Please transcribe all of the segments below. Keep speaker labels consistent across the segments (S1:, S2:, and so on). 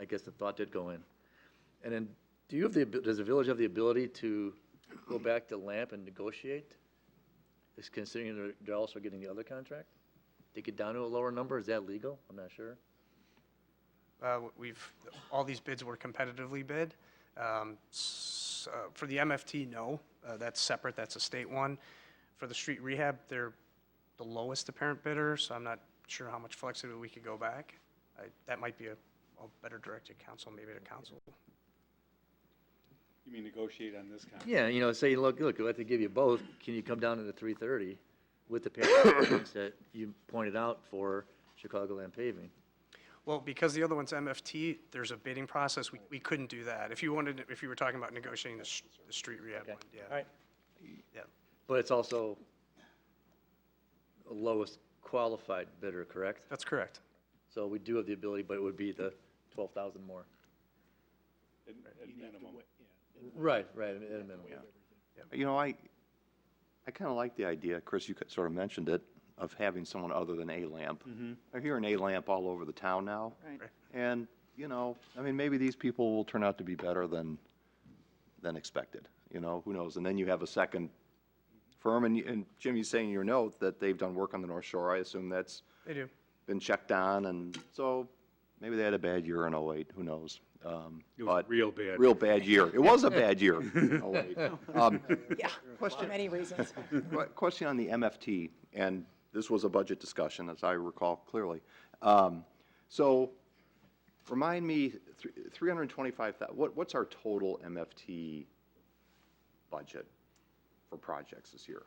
S1: I guess the thought did go in. And then, do you have the, abi- does the village have the ability to go back to LAMP and negotiate? Is considering they're, they're also getting the other contract? They get down to a lower number, is that legal? I'm not sure.
S2: Uh, We've, all these bids were competitively bid. Um, s- uh, For the MFT, no, Uh, that's separate, that's a state one. For the street rehab, they're the lowest apparent bidder, so I'm not sure how much flexibility we could go back. I- That might be a a better directed council, maybe to council.
S3: You mean negotiate on this contract?
S1: Yeah, you know, say, look, look, we'd like to give you both, can you come down to the three thirty with the payments that you pointed out for Chicagoland paving?
S2: Well, because the other one's MFT, there's a bidding process, we we couldn't do that. If you wanted, if you were talking about negotiating the s- the street rehab
S1: Okay,
S2: one, yeah.
S1: all right.
S2: Yeah.
S1: But it's also the lowest qualified bidder, correct?
S2: That's correct.
S1: So we do have the ability, but it would be the twelve thousand more.
S3: At at minimum.
S1: Right, right, at a minimum, yeah.
S4: You know, I, I kind of like the idea, Chris, you sort of mentioned it, of having someone other than A-Lamp.
S3: Mm-hmm.
S4: I hear an A-Lamp all over the town now.
S5: Right.
S2: Right.
S4: And, you know, I mean, maybe these people will turn out to be better than, than expected, you know, who knows? And then you have a second firm, and, you- and Jim, you say in your note that they've done work on the North Shore. I assume that's
S2: They do.
S4: been checked on, and so maybe they had a bad year in '08, who knows? Um,
S3: It was
S4: but-
S3: real bad.
S4: Real bad year. It was a bad year in '08. Um,
S5: Yeah, for many reasons.
S4: Qu- Question on the MFT, and this was a budget discussion, as I recall clearly. Um, So remind me, thr- 325, thou- what, what's our total MFT budget for projects this year?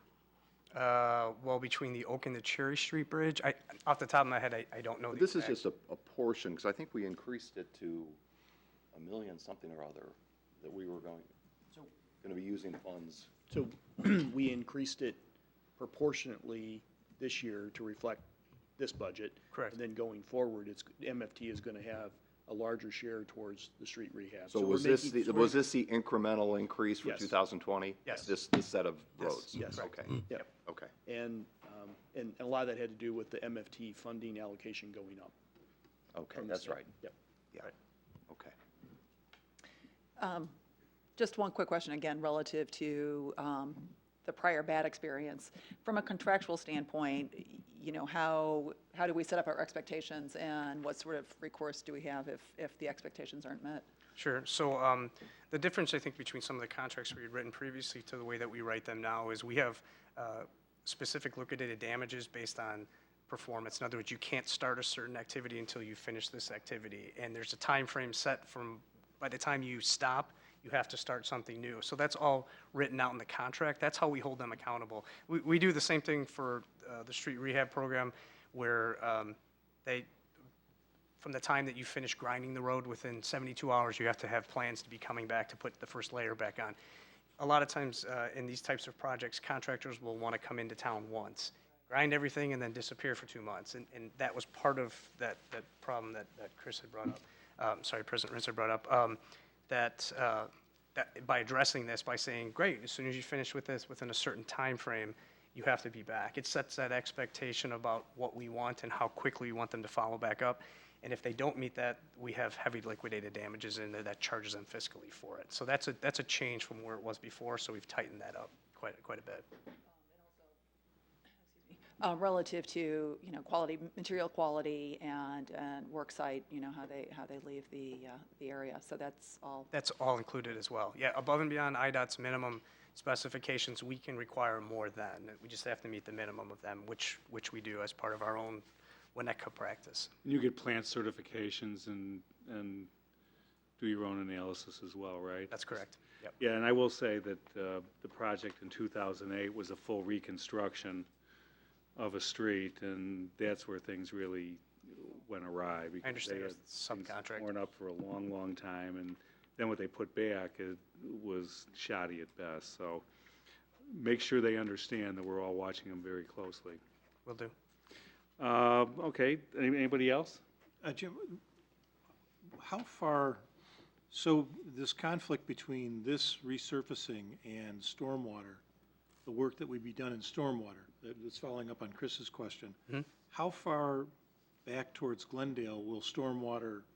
S2: Uh, well, between the Oak and the Cherry Street Bridge, I, off the top of my head, I, I don't know the
S4: This is
S2: exact-
S4: just a, a portion, because I think we increased it to a million something or other, that we were going, going to be using funds.
S6: So we increased it proportionately this year to reflect this budget.
S2: Correct.
S6: And then going forward, it's, MFT is gonna have a larger share towards the street rehab.
S4: So
S6: we're
S4: was this,
S6: making-
S4: the- was this the incremental increase for
S6: Yes.
S4: 2020?
S2: Yes.
S4: This, this set of roads?
S6: Yes. Mm.
S4: Okay,
S6: Yeah,
S4: okay.
S6: and, um, and a lot of that had to do with the MFT funding allocation going up.
S4: Okay,
S6: from the
S4: that's
S6: state.
S4: right.
S6: Yep.
S4: Yeah, okay.
S5: Just one quick question, again, relative to um, the prior bad experience. From a contractual standpoint, y- you know, how, how do we set up our expectations, and what sort of recourse do we have if, if the expectations aren't met?
S2: Sure. So um, the difference, I think, between some of the contracts we had written previously to the way that we write them now is we have uh, specific liquidated damages based on performance. In other words, you can't start a certain activity until you finish this activity. And there's a time frame set from, by the time you stop, you have to start something new. So that's all written out in the contract. That's how we hold them accountable. We, we do the same thing for uh, the street rehab program where um, they, from the time that you finish grinding the road, within 72 hours, you have to have plans to be coming back to put the first layer back on. A lot of times, uh, in these types of projects, contractors will want to come into town once, grind everything, and then disappear for two months. And, and that was part of that, that problem that, that Chris had brought up, um, sorry, President Ritz had brought up, um, that, uh, that, by addressing this, by saying, great, as soon as you finish with this, within a certain time frame, you have to be back. It sets that expectation about what we want and how quickly we want them to follow back up. And if they don't meet that, we have heavy liquidated damages in there that charges them fiscally for it. So that's a, that's a change from where it was before, so we've tightened that up quite, quite a bit.
S5: Uh, Relative to, you know, quality, material quality and, and work site, you know, how they, how they leave the, uh, the area. So that's all
S2: That's all included as well. Yeah, above and beyond IDOT's minimum specifications, we can require more than. We just have to meet the minimum of them, which, which we do as part of our own Winnetka practice.
S3: You get plant certifications and, and do your own analysis as well, right?
S2: That's correct. Yep.
S3: Yeah, and I will say that uh, the project in 2008 was a full reconstruction of a street, and that's where things really went awry. because they
S2: understand it
S3: had
S2: was
S3: things
S2: subcontract.
S3: Worn up for a long, long time, and then what they put back it was shoddy at best. So make sure they understand that we're all watching them very closely.
S2: Will do.
S3: Uh, Okay, any- anybody else?
S7: Uh, Jim, how far, so this conflict between this resurfacing and stormwater, the work that would be done in stormwater, that- that's following up on Chris's question, how far back towards Glendale will stormwater